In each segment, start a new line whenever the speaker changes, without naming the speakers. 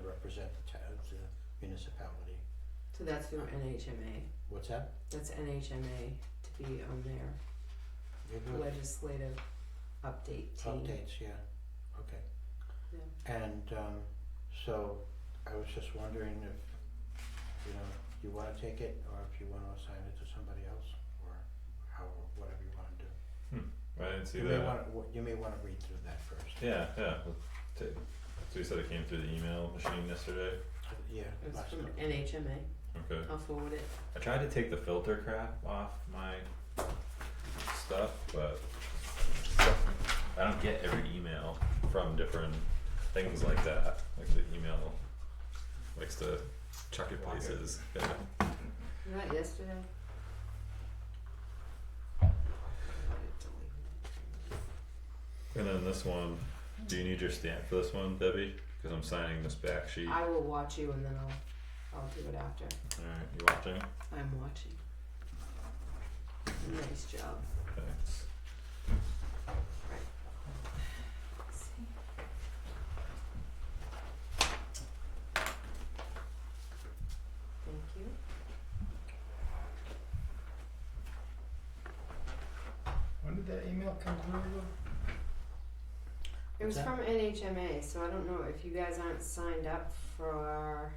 represent the town, the municipality.
So that's through NHMA.
What's that?
That's NHMA to be on their
You're good.
legislative update team.
Updates, yeah, okay.
Yeah.
And um so I was just wondering if, you know, you wanna take it or if you wanna assign it to somebody else or how, whatever you wanna do.
I didn't see
You may
that.
wanna, w- you may wanna read through that first.
Yeah, yeah. we'll ta- So you said it came through the email machine yesterday.
Yeah,
It's
last
from
couple.
NHMA.
Okay.
I'll forward it.
I tried to take the filter crap off my stuff, but I don't get every email from different things like that. Like the email likes to chuck it
Block it.
places. Yeah.
Was that yesterday?
And then this one. Do you need your stamp for this one, Debbie? Because I'm signing this back sheet.
I will watch you and then I'll, I'll do it after.
All right, you watching?
I'm watching. Nice job.
Thanks.
Thank you.
When did that email come through again?
It was
What's
from NHMA, so I don't know if you guys aren't signed up for,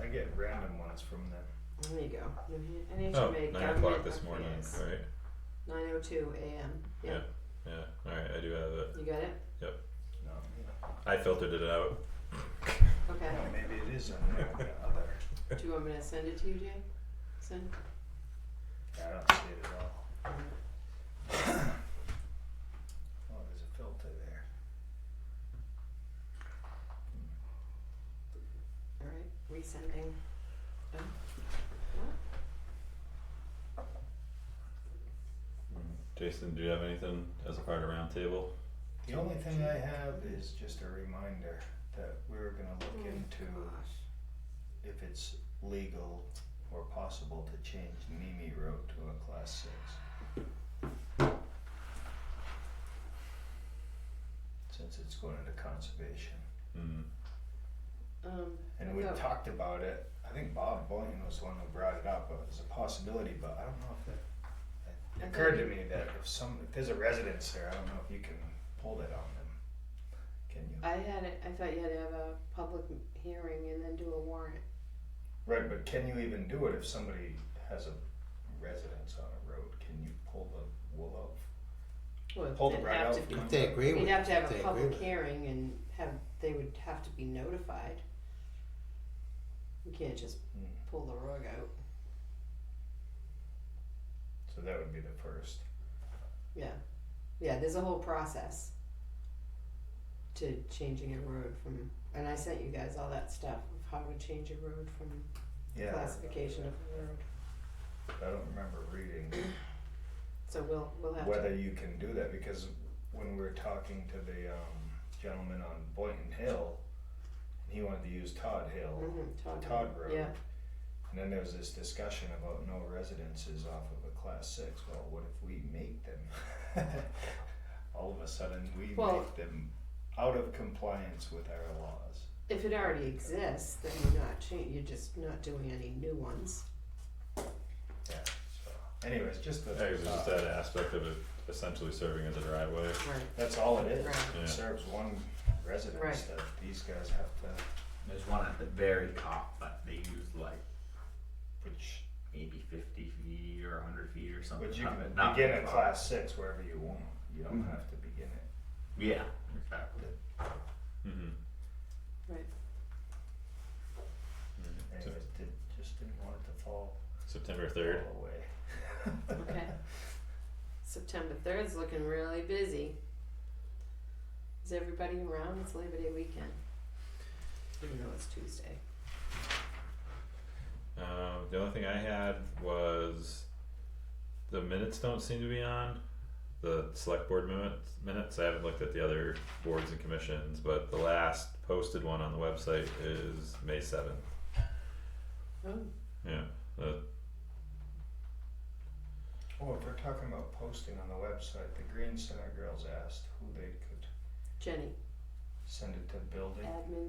I get random ones from them.
there you go, New Han- NHMA
Oh,
government.
nine o'clock this morning.
affairs.
All right.
Nine oh two AM, yeah,
Yeah. All right. I do have it.
you got it?
No, yeah.
I filtered it out.
Okay,
Well, maybe it is on there, on the other.
do you want me to send it to you, Jay? Send?
I don't see it at all. Oh, there's a filter there.
Alright, resending. Done?
Hmm. Jason, do you have anything as a part of roundtable?
The only thing I have is just a reminder that we were gonna
Oh,
look into
Gosh,
if it's legal or possible to change Nimi Road to a class six. Since it's going into conservation.
Mm.
um,
And we
No.
talked about it, I think Bob Boyne was the one who brought it up, it was a possibility, but I don't know if that,
I
it occurred to
thought
me that if some, if there's a residence there, I don't know if you can pull that on them, can you?
I had it, I thought you had to have a public m- hearing and then do a warrant.
Right, but can you even do it if somebody has a residence on a road, can you pull the wool out?
Well,
Pull the
it'd
right
have
out Hmm.
to be-
from-
If they agree with,
You'd have to
if
have
they
a
agree
public
with it.
hearing and have, they would have to be notified. You can't just
Hmm,
pull the rug out,
So that would be the first.
yeah, yeah, there's a whole process. To changing a road from, and I sent you guys all that stuff of how to change a road from
Yeah.
classification of a road,
I don't remember reading
so we'll, we'll have to.
whether you can do that, because when we were talking to the, um, gentleman on Boynton Hill, he wanted to use Todd Hill.
Mhm, Todd.
Todd Road.
Yeah,
And then there was this discussion about no residences off of a class six, well, what if we make them? All of a sudden, we
Well-
make them out of compliance with our laws.
if it already exists, then you're not cha- you're just not doing any new ones.
Yeah, so anyways, just the,
Yeah, 'cause there's just
thought.
that aspect of it essentially serving as a driveway.
Right.
that's all it is.
Right.
Yeah.
It serves one residence
Right.
that these guys have to,
There's one at the very top, but they use like
which,
maybe 50 feet or 100 feet or something.
which you
Not-
can
not
begin
very
at
far.
class six wherever you want, you don't
Mhm.
have to begin it.
Yeah, exactly.
Mm-hmm.
Anyways, did, just didn't want it to fall,
Mm-hmm. September
fall
third.
away.
Okay. September third's looking really busy. Is everybody around? It's Labor Day weekend. Even though it's Tuesday.
Um, the only thing I had was the minutes don't seem to be on the select board minutes. Minutes. I haven't looked at the other boards and commissions, but the last posted one on the website is May seventh.
Oh,
Yeah. The
Oh, if we're talking about posting on the website, the Green Center girls asked who they could
Jenny,
send it to building.
admin